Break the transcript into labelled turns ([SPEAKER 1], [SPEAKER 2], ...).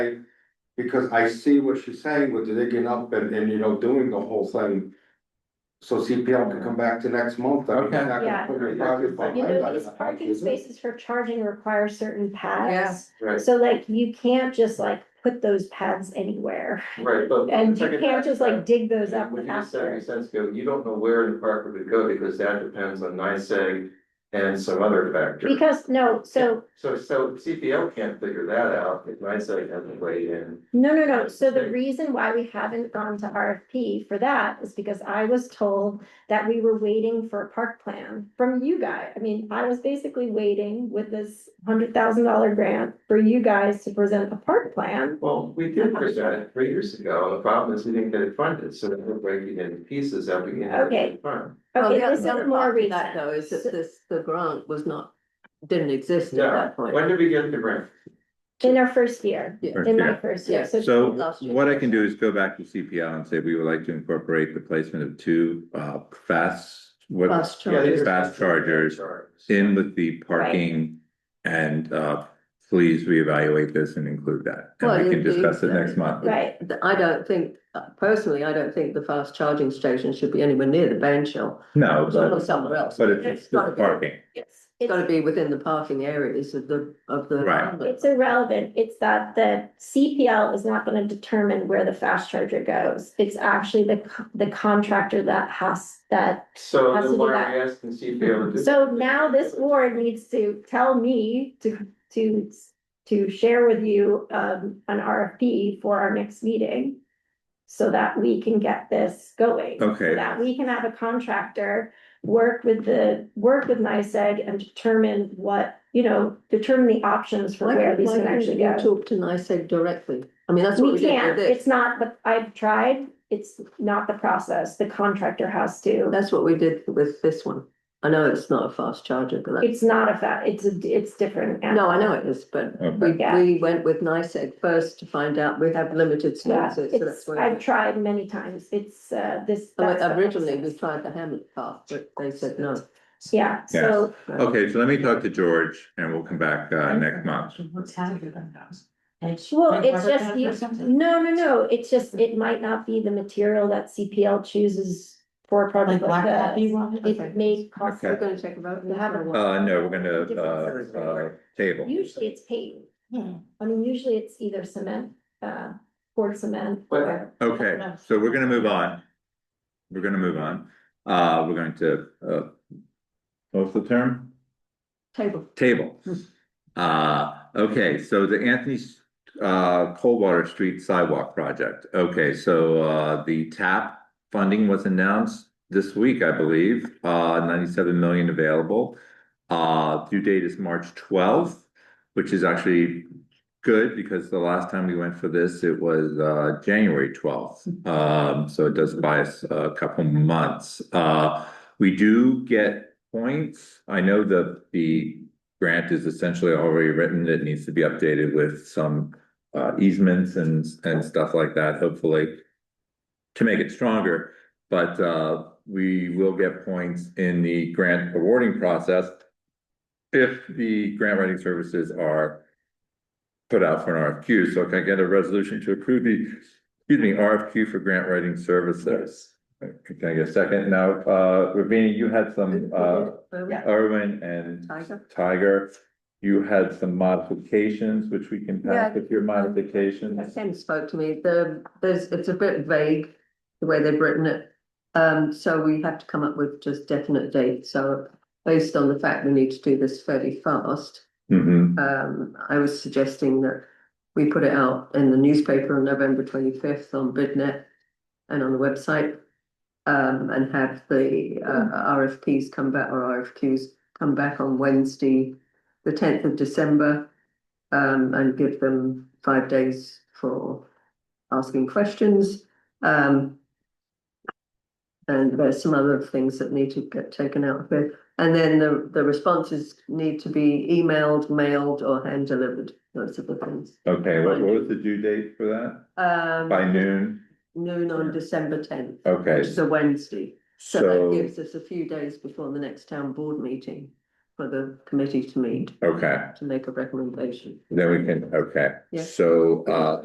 [SPEAKER 1] Because I see what she's saying with the digging up and, and you know, doing the whole thing. So CPL can come back to next month. I mean, it's not gonna
[SPEAKER 2] Yeah.
[SPEAKER 1] put your project on
[SPEAKER 2] You know,
[SPEAKER 1] hold.
[SPEAKER 2] these parking spaces for charging require certain paths.
[SPEAKER 3] Right,
[SPEAKER 2] So like, you can't just like put those paths anywhere,
[SPEAKER 3] right, but.
[SPEAKER 2] and
[SPEAKER 3] it's
[SPEAKER 2] you
[SPEAKER 3] like a-
[SPEAKER 2] can't just like dig those up
[SPEAKER 3] When you said,
[SPEAKER 2] after.
[SPEAKER 3] you said, go, you don't know where in the park it would go because that depends on NICEAG and some other factor.
[SPEAKER 2] Because, no, so,
[SPEAKER 3] So, so CPL can't figure that out if NICEAG hasn't weighed in.
[SPEAKER 2] no, no, no, so the reason why we haven't gone to RFP for that is because I was told that we were waiting for a park plan from you guys. I mean, I was basically waiting with this hundred thousand dollar grant for you guys to present a park plan.
[SPEAKER 3] Well, we
[SPEAKER 2] Uh-huh.
[SPEAKER 3] did present it three years ago, and the problem is we didn't get it funded, so then we're breaking it into pieces every year.
[SPEAKER 2] Okay.
[SPEAKER 3] Fine.
[SPEAKER 4] Well,
[SPEAKER 2] Okay,
[SPEAKER 4] the
[SPEAKER 2] this is
[SPEAKER 4] other
[SPEAKER 2] more
[SPEAKER 4] part to
[SPEAKER 2] recent.
[SPEAKER 4] That though, is
[SPEAKER 2] So-
[SPEAKER 4] that this, the grant was not, didn't exist at
[SPEAKER 3] Yeah,
[SPEAKER 4] that point.
[SPEAKER 3] when did we get the grant?
[SPEAKER 2] In our first year,
[SPEAKER 4] Yeah.
[SPEAKER 2] in my first year,
[SPEAKER 4] Yeah.
[SPEAKER 2] so.
[SPEAKER 5] So
[SPEAKER 4] Last year.
[SPEAKER 5] what I can do is go back to CPL and say we would like to incorporate the placement of two uh fast. What
[SPEAKER 4] Fast
[SPEAKER 3] Yeah, these
[SPEAKER 4] charge.
[SPEAKER 3] are-
[SPEAKER 5] Fast chargers in with the parking and uh please reevaluate this and include that.
[SPEAKER 4] Well,
[SPEAKER 5] And we
[SPEAKER 4] you-
[SPEAKER 5] can discuss it
[SPEAKER 4] you-
[SPEAKER 5] next month.
[SPEAKER 2] Right,
[SPEAKER 4] I don't think, uh, personally, I don't think the fast charging station should be anywhere near the ban shell.
[SPEAKER 5] No,
[SPEAKER 4] It's
[SPEAKER 5] but
[SPEAKER 4] all somewhere else.
[SPEAKER 5] but it's it's
[SPEAKER 4] gotta
[SPEAKER 5] the
[SPEAKER 4] be-
[SPEAKER 5] parking.
[SPEAKER 2] it's,
[SPEAKER 4] It's gotta
[SPEAKER 2] it's
[SPEAKER 4] be within the parking areas of the, of the.
[SPEAKER 5] Right.
[SPEAKER 2] it's irrelevant, it's that the CPL is not gonna determine where the fast charger goes. It's actually the, co- the contractor that has that.
[SPEAKER 3] So
[SPEAKER 2] Has to
[SPEAKER 3] then
[SPEAKER 2] do
[SPEAKER 3] why
[SPEAKER 2] that.
[SPEAKER 3] are we asking CPL to do?
[SPEAKER 2] So now this board needs to tell me to, to, to share with you, um, an RFP for our next meeting. So that we can get this going. so
[SPEAKER 5] Okay,
[SPEAKER 2] that we can have a contractor work with the, work with NICEAG and determine what, you know, determine the options for
[SPEAKER 4] Why
[SPEAKER 2] where
[SPEAKER 4] can't
[SPEAKER 2] these
[SPEAKER 4] why
[SPEAKER 2] can
[SPEAKER 4] can't
[SPEAKER 2] actually
[SPEAKER 4] you
[SPEAKER 2] go.
[SPEAKER 4] talk to NICEAG directly? I mean, that's what
[SPEAKER 2] We
[SPEAKER 4] we did with
[SPEAKER 2] can't,
[SPEAKER 4] this.
[SPEAKER 2] it's not, but I've tried, it's not the process, the contractor has to.
[SPEAKER 4] That's what we did with this one. I know it's not a fast charger, but that's,
[SPEAKER 2] It's not a fact, it's a, it's different.
[SPEAKER 4] no, I know it is, but we,
[SPEAKER 5] okay,
[SPEAKER 2] Yeah.
[SPEAKER 4] we went with NICEAG first to find out. We have limited
[SPEAKER 2] Yeah,
[SPEAKER 4] sources, so that's
[SPEAKER 2] it's,
[SPEAKER 4] why. we
[SPEAKER 2] I've tried many times, it's, uh, this.
[SPEAKER 4] Oh,
[SPEAKER 2] that's the
[SPEAKER 4] Originally, we
[SPEAKER 2] process.
[SPEAKER 4] tried the Hamlet Park, but they said no.
[SPEAKER 2] Yeah, so,
[SPEAKER 5] okay, so let me talk to George and we'll come back uh next month.
[SPEAKER 2] well, it's just, you- no, no, no, it's just, it might not be the material that CPL chooses for a project like this. It may cost,
[SPEAKER 4] We're
[SPEAKER 5] Okay.
[SPEAKER 4] gonna take a vote.
[SPEAKER 2] We haven't-
[SPEAKER 5] Uh, no, we're gonna uh uh table.
[SPEAKER 2] usually it's paved.
[SPEAKER 5] Hmm.
[SPEAKER 2] I mean, usually it's either cement, uh, poured cement.
[SPEAKER 3] But-
[SPEAKER 2] or-
[SPEAKER 5] Okay, so we're gonna move on. We're gonna move on. Uh, we're going to, uh, what's the term?
[SPEAKER 4] Table.
[SPEAKER 5] Table. Uh, okay, so the Anthony, uh, Coldwater Street Sidewalk Project. Okay, so, uh, the TAP funding was announced this week, I believe, uh, ninety-seven million available. Uh, due date is March twelfth, which is actually good because the last time we went for this, it was uh January twelfth. Um, so it does buy us a couple months. Uh, we do get points. I know the the grant is essentially already written. It needs to be updated with some uh easements and and stuff like that, hopefully to make it stronger. But uh we will get points in the grant awarding process if the grant writing services are put out for an RFQ, so can I get a resolution to approve the, excuse me, RFQ for grant writing services? Can I get a second? Now, uh, Ravina, you had some, uh, Irwin and
[SPEAKER 4] Tiger.
[SPEAKER 5] Tiger. You had some modifications, which we can pass with your modifications.
[SPEAKER 4] Ken spoke to me, the, there's, it's a bit vague, the way they've written it. Um, so we have to come up with just definite dates, so based on the fact we need to do this fairly fast.
[SPEAKER 5] Mhm.
[SPEAKER 4] Um, I was suggesting that we put it out in the newspaper on November twenty-fifth on BidNet and on the website. Um, and have the uh RFPs come back or RFQs come back on Wednesday, the tenth of December. Um, and give them five days for asking questions. Um. And there's some other things that need to get taken out of it. And then the, the responses need to be emailed, mailed or hand delivered, those are the things.
[SPEAKER 5] Okay, what, what was the due date for that?
[SPEAKER 4] Um,
[SPEAKER 5] By noon?
[SPEAKER 4] Noon on December tenth,
[SPEAKER 5] Okay,
[SPEAKER 4] which is a Wednesday. So that
[SPEAKER 5] so,
[SPEAKER 4] gives us a few days before the next town board meeting for the committee to meet,
[SPEAKER 5] Okay,
[SPEAKER 4] to make a recommendation.
[SPEAKER 5] then we can, okay.
[SPEAKER 4] Yeah.
[SPEAKER 5] So, uh,